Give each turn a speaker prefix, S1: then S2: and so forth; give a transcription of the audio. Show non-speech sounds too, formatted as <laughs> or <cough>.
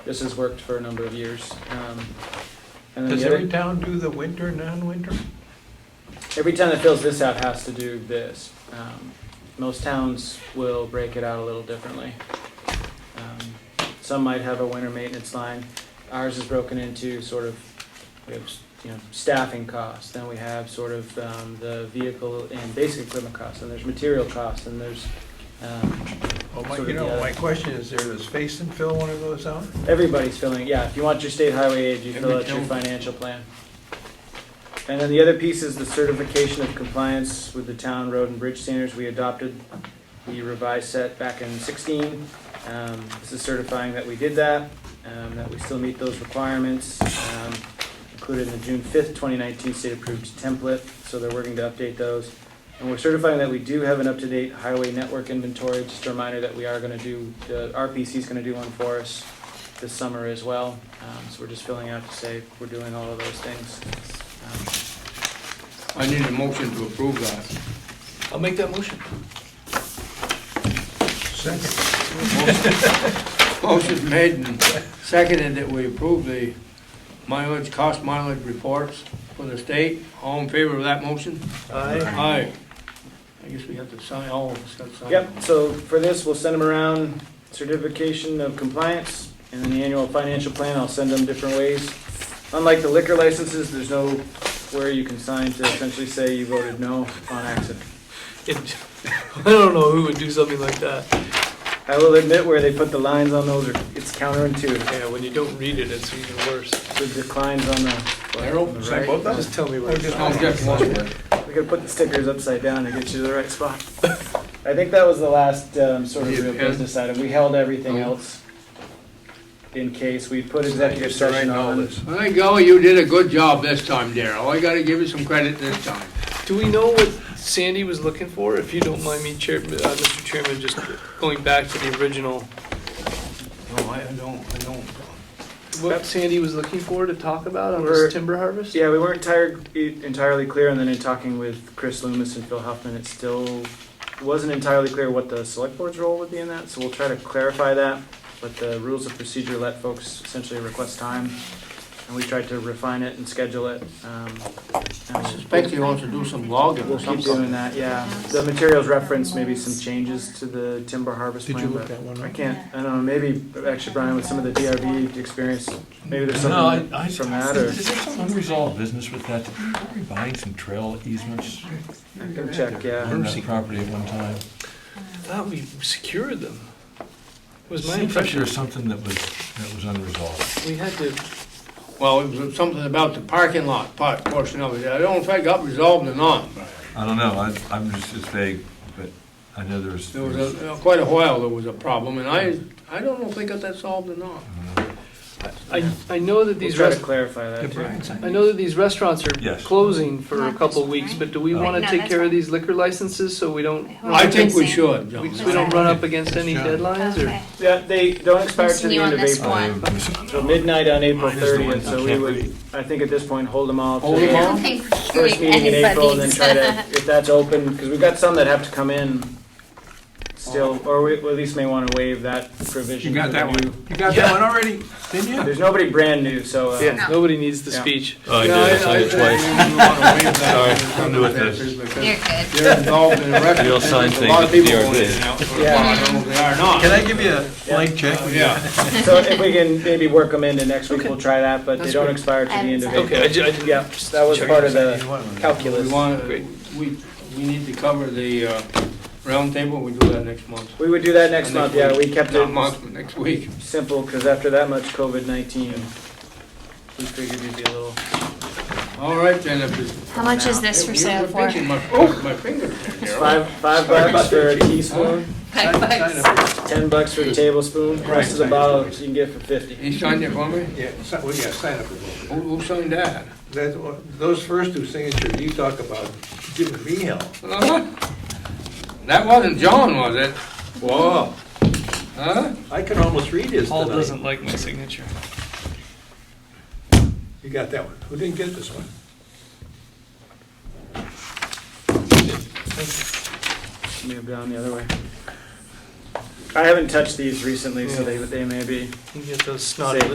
S1: This has worked for a number of years. Um, and then
S2: Does
S1: the other-
S2: every town do the winter, non-winter?
S1: every town that fills this out has to do this. Um, most towns will break it out a little differently. Um, some might have a winter maintenance line. Ours is broken into sort of, we have, you know, staffing costs, then we have sort of um, the vehicle and basic equipment costs, and there's material costs, and there's, um,
S2: Oh, my,
S1: Sort
S2: you
S1: of,
S2: know,
S1: yeah.
S2: my question is, there, does Facein fill one of those out?
S1: Everybody's filling, yeah, if you want your state highway aid, you fill
S2: Every
S1: out your
S2: town.
S1: financial plan. And then the other piece is the certification of compliance with the town road and bridge standards we adopted, the revised set back in sixteen. Um, this is certifying that we did that, um, that we still meet those requirements, um, included in the June fifth, twenty nineteen state-approved template, so they're working to update those. And we're certifying that we do have an up-to-date highway network inventory, just a reminder that we are gonna do, the RPC's gonna do one for us this summer as well. Um, so we're just filling out to say we're doing all of those things. Um,
S3: I need a motion to approve that.
S4: I'll make that motion.
S2: Second,
S3: Motion made and seconded that we approve the mileage, cost mileage reports for the state. All in favor of that motion?
S2: aye,
S3: Aye. I guess we have to sign, all of us got to sign.
S1: Yep, so for this, we'll send them around certification of compliance and then the annual financial plan. I'll send them different ways. Unlike the liquor licenses, there's no where you can sign to essentially say you voted no on accident.
S4: <laughs> I don't know who would do something like that.
S1: I will admit where they put the lines on those, are- it's counterintuitive.
S4: Yeah, when you don't read it, it's even worse.
S1: The declines on the, on
S3: Daryl?
S1: the
S2: Sign
S1: right.
S2: both of them?
S4: Just tell me where.
S2: Or
S4: it's
S2: just
S4: at.
S3: Oh, just one.
S1: We could put the stickers upside down to get you to the right spot. I think that was the last um, sort of
S3: You
S1: real
S3: can-
S1: business item. We held everything
S3: Oh.
S1: else in case we put
S2: It's not
S1: executive
S2: just to write
S1: session
S2: all
S1: on.
S2: this.
S3: I think, oh, you did a good job this time, Daryl. I gotta give you some credit this time.
S4: Do we know what Sandy was looking for? If you don't mind me, Chair, uh, Mr. Chairman, just going back to the original,
S3: No, I I don't, I don't.
S4: what Sandy was looking for to talk about on
S1: We're-
S4: this timber harvest?
S1: Yeah, we weren't tired, e, entirely clear, and then in talking with Chris Loomis and Phil Huffman, it still wasn't entirely clear what the select board's role would be in that, so we'll try to clarify that. But the rules of procedure let folks essentially request time, and we tried to refine it and schedule it. um,
S3: I
S1: and-
S3: suspect he wants to do some logging
S1: We'll
S3: or
S1: keep doing
S3: something.
S1: that, yeah. The materials reference, maybe some changes to the timber harvest
S2: Did you
S1: plan,
S2: look
S1: but
S2: that one
S1: I
S2: up?
S1: can't, I don't know, maybe, actually, Brian, with some of the DRB experience, maybe there's
S5: No, I-
S1: something
S5: I-
S1: from that, or
S5: Is there some unresolved business with that? Are we buying some trail easements
S1: I can check,
S5: on
S1: yeah.
S5: that property at one time?
S4: I thought we secured them. Was my
S5: Seems like there
S4: impression.
S5: was something that was, that was unresolved.
S4: We had to,
S3: Well, it was something about the parking lot part portion of it. I don't know if that got resolved or not.
S5: I don't know, I, I'm just as vague, but I know there was.
S3: There was a, quite a while there was a problem, and I, I don't know if they got that solved or not.
S4: I, I know that
S1: We'll
S4: these
S1: try to
S4: rest,
S1: clarify that, too.
S4: I
S5: Brian
S4: know that these restaurants are
S5: Yes.
S4: closing for a
S6: Not
S4: couple
S6: this one,
S4: weeks,
S6: right?
S4: but do we
S5: Right.
S4: wanna
S6: No,
S4: take
S6: that's
S4: care of
S6: fine.
S4: these liquor licenses so we don't,
S3: I think we should,
S4: we
S3: John.
S4: we don't run up against any
S2: Yeah.
S4: deadlines or?
S6: Okay.
S1: Yeah, they don't expire to the
S6: Continue
S1: end
S6: on
S1: of
S6: this
S1: April,
S6: one.
S1: so midnight on April
S5: Mine is the one
S1: thirtieth, so
S5: you
S1: we
S5: can't
S1: would,
S5: read.
S1: I think at this point, hold them all to
S3: Hold 'em
S6: I
S1: the
S3: all?
S6: don't think we're
S1: first
S6: doing
S1: meeting in April, and then
S6: anybody's.
S1: try
S6: <laughs>
S1: to, if that's open, because we've got some that have to come in still, or we we at least may want to waive that provision. for the new-
S3: You got
S4: that
S3: one already?
S5: Didn't you?
S1: There's nobody brand new, so. uh,
S4: Yeah, nobody needs the
S1: Yeah.
S4: speech.
S3: Oh, I did,
S5: I'm new at this.
S6: You're good.
S3: They're involved in a record.
S5: You'll sign
S3: A lot of
S5: things
S3: people
S5: at
S3: want
S5: DRB.
S3: it now, so
S1: Yeah.
S3: I don't know if they are or not.
S2: Can I give you a blank check?
S3: Yeah,
S1: So if we can maybe work them into next week,
S4: Okay.
S1: we'll try that, but they
S4: That's
S1: don't
S4: great.
S1: expire to the end of
S6: Okay.
S1: April.
S4: Okay, I ju- I didn't-
S1: Yeah, that was part
S2: Uh,
S1: of the
S3: we
S1: calculus.
S3: want,
S4: Great.
S3: we, we need to cover the, uh, roundtable, we do that next month.
S1: We would do that next month, yeah, we kept
S3: Not
S1: it
S3: month, but next week.
S1: simple, because after that much COVID-19, we figured it'd be a little.
S3: All right, then, if it's.
S6: How much is this for
S3: You're
S6: sale for?
S3: pinching My, oh, my finger there,
S1: It's
S3: Darryl.
S1: Five, five bucks for a teaspoon,
S6: Five bucks.
S1: ten bucks for a tablespoon, the rest of the bottle you can get for fifty.
S3: You signed it for me?
S2: Yeah, si- well, yeah, sign up. as well.
S3: Who, who signed that?
S2: That, those first two signatures you talk about, giving me hell.
S3: Uh-huh. That wasn't John, was it? Whoa. Huh?
S2: I can almost read his
S4: Paul
S2: tonight.
S4: doesn't like my signature.
S2: You got that one. Who didn't get this one?
S1: Move down the other way. I haven't touched these recently, so they, they may be.
S4: You get those snotty
S1: Say-